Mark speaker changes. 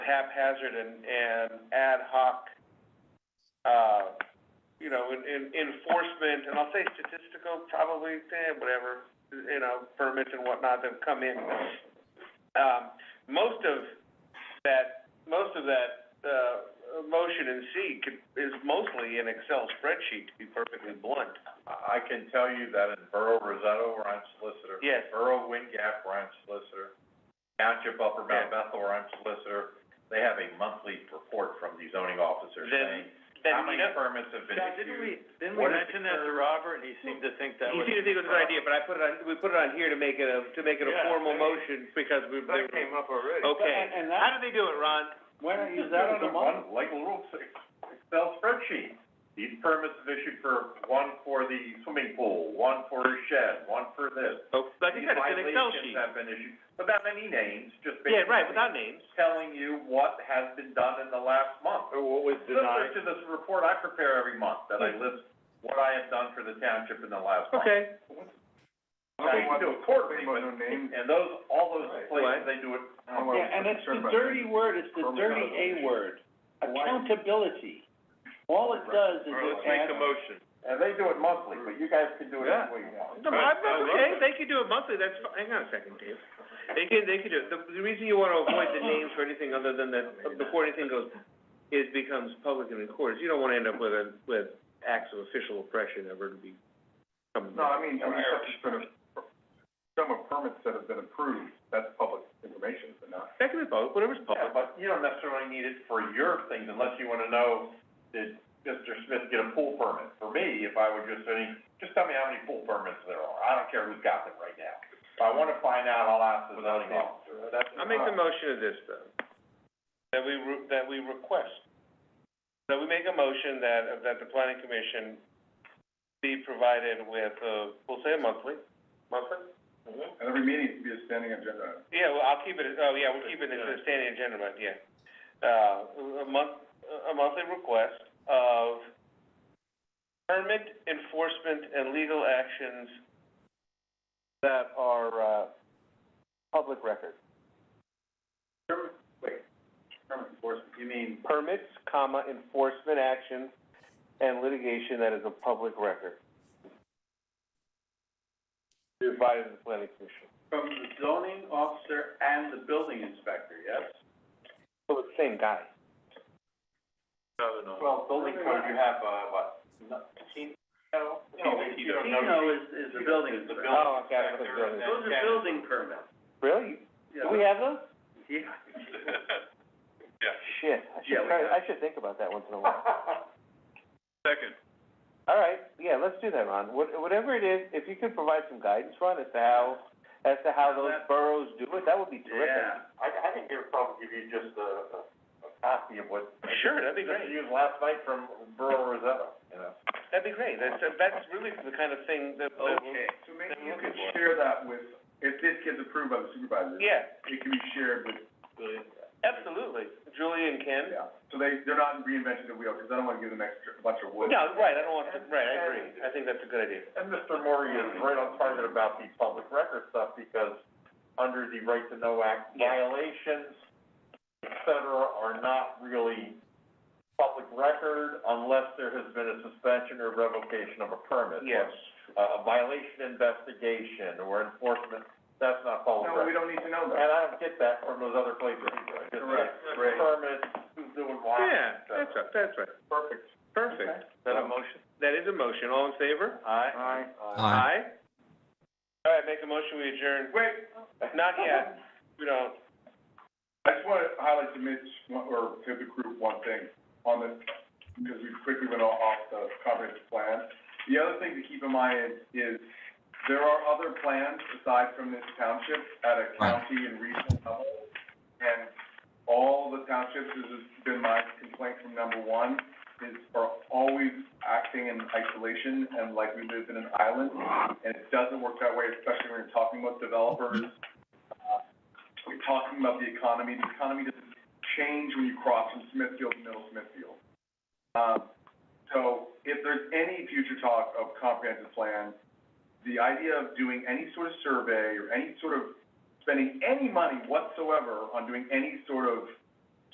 Speaker 1: haphazard and, and ad hoc, uh, you know, in, in enforcement, and I'll say statistical, probably, eh, whatever, you know, permits and whatnot that come in. Um, most of that, most of that, uh, motion in C could, is mostly an Excel spreadsheet, to be perfectly blunt.
Speaker 2: I I can tell you that in Borough Rosetto, we're on solicitor.
Speaker 1: Yes.
Speaker 2: Borough Wind Gap, we're on solicitor. Township Upper Mount Bethel, we're on solicitor. They have a monthly report from the zoning officer
Speaker 1: Then-
Speaker 2: saying,
Speaker 1: Then
Speaker 2: how
Speaker 1: we
Speaker 2: many
Speaker 1: don't-
Speaker 2: permits have been
Speaker 3: Scott, didn't
Speaker 2: issued?
Speaker 3: we, didn't we
Speaker 2: What is
Speaker 3: mention that to
Speaker 2: the-
Speaker 3: Robert, and he seemed to think that
Speaker 1: He
Speaker 3: was.
Speaker 1: seemed to think it was a good idea, but I put it on, we put it on here to make it a, to make it a
Speaker 3: Yeah, I
Speaker 1: formal
Speaker 3: mean-
Speaker 1: motion because we, they were,
Speaker 2: up already.
Speaker 1: okay.
Speaker 3: And- and that-
Speaker 1: How did they do it, Ron?
Speaker 3: Why
Speaker 2: Like a little Excel spreadsheet. These permits have issued for, one for the swimming pool, one for a shed, one for this.
Speaker 1: Oh, like I said, it's an Excel
Speaker 2: These violations
Speaker 1: sheet.
Speaker 2: have been issued, without any names, just
Speaker 1: Yeah,
Speaker 2: basically.
Speaker 1: right, without names.
Speaker 2: Telling you what has been done in the last month.
Speaker 3: Or what was
Speaker 2: Similar
Speaker 3: denied,
Speaker 2: to this report I prepare every month, that I list what I have done for the township in the last month.
Speaker 1: Okay.
Speaker 2: Now, you can do it quarterly, but, and those, all those
Speaker 3: Right.
Speaker 2: places, they do it.
Speaker 4: Yeah, and it's the dirty word, it's the dirty A word, accountability. All it does is it adds,
Speaker 3: motion.
Speaker 2: And they do it monthly, but you guys can do it
Speaker 3: Yeah.
Speaker 2: any way you want.
Speaker 1: No, but I'm, that's okay, they could do it monthly, that's fi- hang on a second, Dave. They could, they could do it, the, the reason you wanna avoid the names for anything other than that, before anything goes, is becomes public and recorded, you don't wanna end up with a, with acts of official oppression ever to be.
Speaker 5: No, I mean, I mean, stuff that's been, a- some of permits that have been approved, that's public information, but not.
Speaker 1: That can be public, whatever's
Speaker 2: Yeah,
Speaker 1: public.
Speaker 2: but you don't necessarily need it for your things unless you wanna know, did Mr. Smith get a pool permit? For me, if I were just saying, just tell me how many pool permits there are, I don't care who's got them right now. If I wanna find out, I'll ask the zoning officer, that's.
Speaker 1: I'll make the motion of this, though. That we, re- that we request, that we make a motion that, that the planning commission be provided with, uh, we'll say monthly, monthly?
Speaker 5: And every meeting should be a standing agenda.
Speaker 1: Yeah, well, I'll keep it, as- oh, yeah, we'll keep it as a standing agenda, but, yeah. Uh, a month, a monthly request of permit enforcement and legal actions that are, uh, public record.
Speaker 5: Permit enforcement, you mean?
Speaker 1: permits, comma, enforcement actions, and litigation that is a public record. Provided the planning commission.
Speaker 2: From the zoning officer and the building inspector, yes?
Speaker 1: So it's the same guy.
Speaker 3: No, no.
Speaker 2: Well, building code, you have, uh, what, nineteen? No,
Speaker 5: Tino.
Speaker 4: Tino is, is the building
Speaker 2: It's the
Speaker 4: inspector.
Speaker 2: building
Speaker 1: Oh, okay, I put
Speaker 2: inspector,
Speaker 1: building.
Speaker 2: and then
Speaker 4: Those are
Speaker 2: Ken.
Speaker 4: building permits.
Speaker 1: Really? Do we have those?
Speaker 4: Yeah.
Speaker 1: Shit, I should
Speaker 2: Yeah, we
Speaker 1: try,
Speaker 2: have.
Speaker 1: I should think about that once in a while.
Speaker 3: Second.
Speaker 1: All right, yeah, let's do that, Ron. What, whatever it is, if you could provide some guidance, Ron, as to how, as to how those boroughs do it, that would be terrific.
Speaker 2: Yeah, I, I can give, probably give you just a, a- a copy of what.
Speaker 1: Sure, that'd be
Speaker 2: Just used last night from Borough Rosetta, you know.
Speaker 1: That'd be great. That's, that's really the kind of thing that,
Speaker 5: Oh, Okay, so maybe you could share that with, if this gets approved by the supervisor,
Speaker 1: yeah,
Speaker 5: it can be shared with the,
Speaker 1: absolutely. Julie and Ken?
Speaker 5: yeah. So they, they're not reinventing the wheel, because I don't wanna give them extra, a bunch of wood.
Speaker 1: No, right, I don't want to, right, I agree, I think that's a good idea.
Speaker 2: And Mr. Maury is right on target about the public record stuff, because under the Right to Know Act,
Speaker 1: Yeah.
Speaker 2: violations, et cetera, are not really public record unless there has been a suspension or revocation of a permit.
Speaker 1: Yes.
Speaker 2: Uh, A violation investigation or enforcement, that's not public
Speaker 5: No,
Speaker 2: record.
Speaker 5: we don't need to know
Speaker 2: And
Speaker 5: that.
Speaker 2: I don't get that from those other places either. I just
Speaker 5: Correct,
Speaker 2: get
Speaker 5: right.
Speaker 2: Permits, who's doing what.
Speaker 1: Yeah, that's right, that's right,
Speaker 2: Perfect.
Speaker 1: perfect.
Speaker 3: Is that a motion?
Speaker 1: That is a motion, all in favor?
Speaker 2: Aye.
Speaker 1: Aye. All right, make a motion, we adjourn.
Speaker 5: Wait,
Speaker 1: Not yet, we don't.
Speaker 5: I just wanna highlight to Mitch, one- or to the group, one thing, on the, because we quickly went all off the comprehensive plan. The other thing to keep in mind is, is there are other plans aside from this township at a county and regional level. And all the townships, this has been my complaint from number one, is are always acting in isolation and like we live in an island. And it doesn't work that way, especially when you're talking with developers, uh, we're talking about the economy, the economy doesn't change when you cross from Smithfield to Middle Smithfield. Um, so if there's any future talk of comprehensive plan, the idea of doing any sort of survey or any sort of, spending any money whatsoever on doing any sort of